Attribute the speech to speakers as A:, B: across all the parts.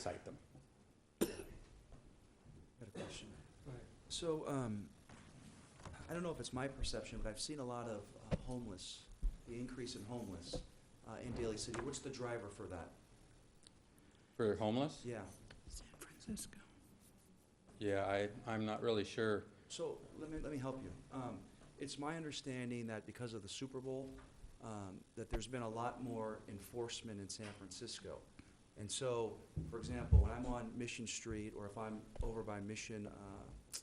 A: cite them.
B: Got a question. So, um, I don't know if it's my perception, but I've seen a lot of uh, homeless, the increase in homeless, uh, in Daly City. What's the driver for that?
A: For homeless?
B: Yeah.
C: San Francisco.
A: Yeah, I, I'm not really sure.
B: So, let me, let me help you. Um, it's my understanding that because of the Super Bowl, um, that there's been a lot more enforcement in San Francisco. And so, for example, when I'm on Mission Street, or if I'm over by Mission, uh,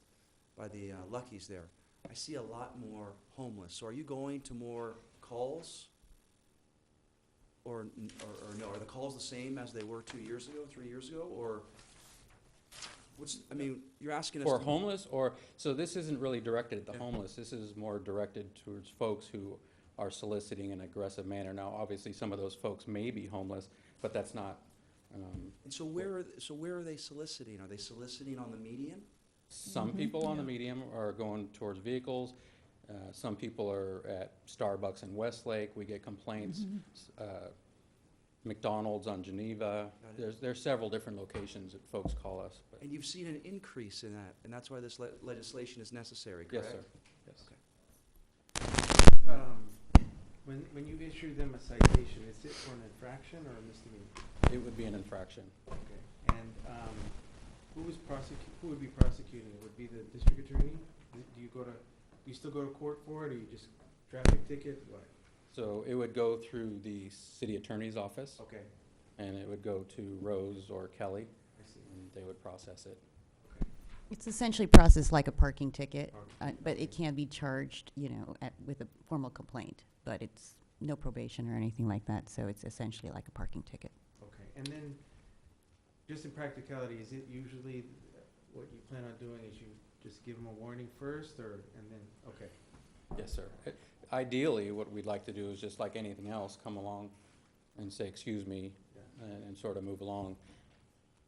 B: by the uh, Luckies there, I see a lot more homeless. So are you going to more calls? Or, n- or, or no, are the calls the same as they were two years ago, three years ago, or what's, I mean, you're asking us.
A: For
B: to-
A: homeless or, so this isn't really directed at the
B: Yeah.
A: homeless. This is more directed towards folks who are soliciting in an aggressive manner. Now, obviously, some of those folks may be homeless, but that's not, um,
B: And so where, are th- so where are they soliciting? Are they soliciting on the median?
A: Some
B: Mm-hmm.
C: Mhm.
A: people on the
C: Yeah.
A: medium are going towards vehicles. Uh, some people are at Starbucks in Westlake. We get complaints. S- Uh, McDonald's on Geneva.
B: Mm-hmm. Got it.
A: There's, there's several different locations that folks call us. But
B: And you've seen an increase in that, and that's why this le- legislation is necessary,
A: yes,
B: correct?
A: sir. Yes.
D: Um, When, when you issue them a citation, is it for an infraction or a misdemeanor?
A: It would be an infraction.
D: Okay. And um, who was prosecu, who would be prosecuting? it? Would it be the district attorney? Do do you go to, do you still go to court for it, or you just traffic ticket? What?
A: So it would go through the city attorney's office,
D: Okay,
A: and it would go to Rose or Kelly,
D: I see.
A: and they would process it.
C: It's essentially processed like a parking ticket,
D: Parking,
C: uh, but it
D: okay.
C: can be charged, you know, at, with a formal complaint. But it's no probation or anything like that, so it's essentially like a parking ticket.
D: Okay, and then, just in practicality, is it usually uh, what you plan on doing is you just give them a warning first, or, and then, okay.
A: Yes, sir. I- Ideally, what we'd like to do is just like anything else, come along and say, excuse me,
D: Yeah.
A: and, and sort of move along.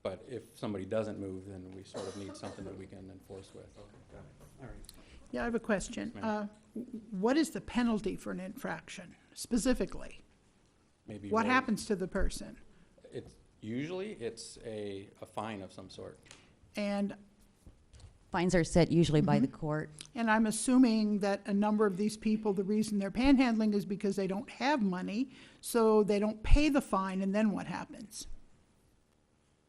A: But if somebody doesn't move, then we sort of need something that we can enforce with.
D: Okay, got it, all right.
E: Yeah, I have a question.
A: Yes,
E: Uh,
A: ma'am.
E: w- What is the penalty for an infraction specifically?
A: Maybe
E: What
A: more-
E: happens to the person?
A: It's, usually, it's a, a fine of some sort.
E: And,
C: Fines are set usually by the court.
E: and I'm assuming that a number of these people, the reason they're panhandling is because they don't have money, so they don't pay the fine, and then what happens?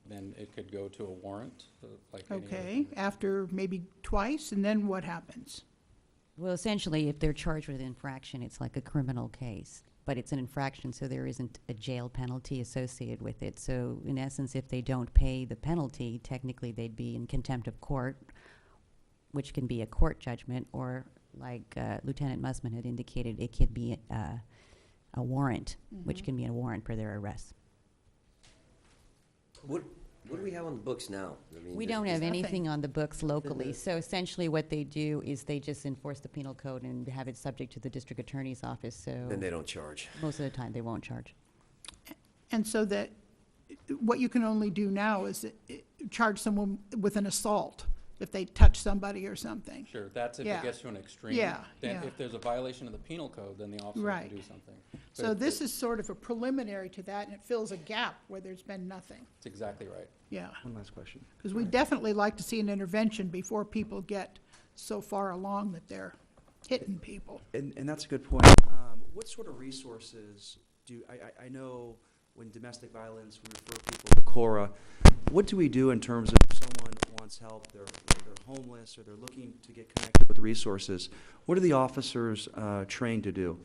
A: Then it could go to a warrant, uh, like any other
E: Okay,
A: thing.
E: after maybe twice, and then what happens?
C: Well, essentially, if they're charged with infraction, it's like a criminal case. But it's an infraction, so there isn't a jail penalty associated with it. So in essence, if they don't pay the penalty, technically they'd be in contempt of court, which can be a court judgment, or like uh, Lieutenant Musman had indicated, it could be uh, a warrant, which can be a warrant for their arrest.
F: What, what do we have on the books now? I mean,
C: We
F: does-
C: don't
F: does-
C: have
E: nothing.
C: anything on the books locally,
F: the-
C: so essentially what they do is they just enforce the penal code and have it subject to the district attorney's office, so.
F: Then they don't charge.
C: Most of the time, they won't charge.
E: And so that, what you can only do now is uh, charge someone with an assault if they touch somebody or something.
A: Sure, that's if it
E: Yeah.
A: gets to an extreme.
E: Yeah,
A: Then
E: yeah.
A: if there's a violation of the penal code, then the officer
E: Right.
A: can do something. But
E: So
A: if-
E: this is sort of a preliminary to that, and it fills a gap where there's been nothing.
A: That's exactly right.
E: Yeah,
B: One last question.
E: because we definitely like to see an intervention before people get so far along that they're hitting people.
B: And, and that's a good point. Um, what sort of resources do, I, I, I know when domestic violence, we refer people to Cora. What do we do in terms of if someone wants help, they're, they're homeless, or they're looking to get connected with resources? What are the officers, uh, trained to do?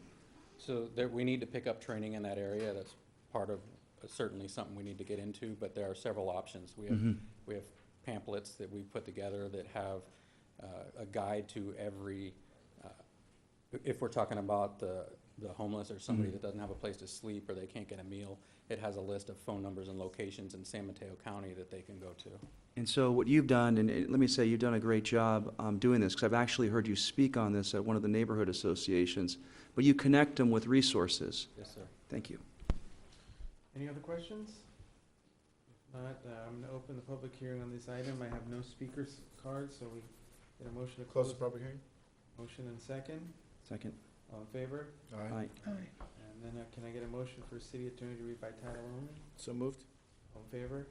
A: So there, we need to pick up training in that area. That's part of, uh, certainly something we need to get into, but there are several options. We have, we have pamphlets that we put together that have uh, a guide to every, uh, if we're talking about the, the homeless or somebody that doesn't have a place to sleep or they can't get a meal, it has a list of phone numbers and locations in San Mateo County that they can go to.
B: And so what you've done, and it- let me say, you've done a great job um, doing this, because I've actually heard you speak on this at one of the neighborhood associations, but you connect them with resources.
A: Yes, sir.
B: Thank you.
D: Any other questions? If not, uh, I'm gonna open the public hearing on this item. I have no speakers card, so we get a motion to close.
G: public hearing?
D: Motion and second.
B: Second.
D: All in favor?
B: Aye.
D: And then uh, can I get a motion for city attorney to read by title only?
G: So moved?
D: All in favor?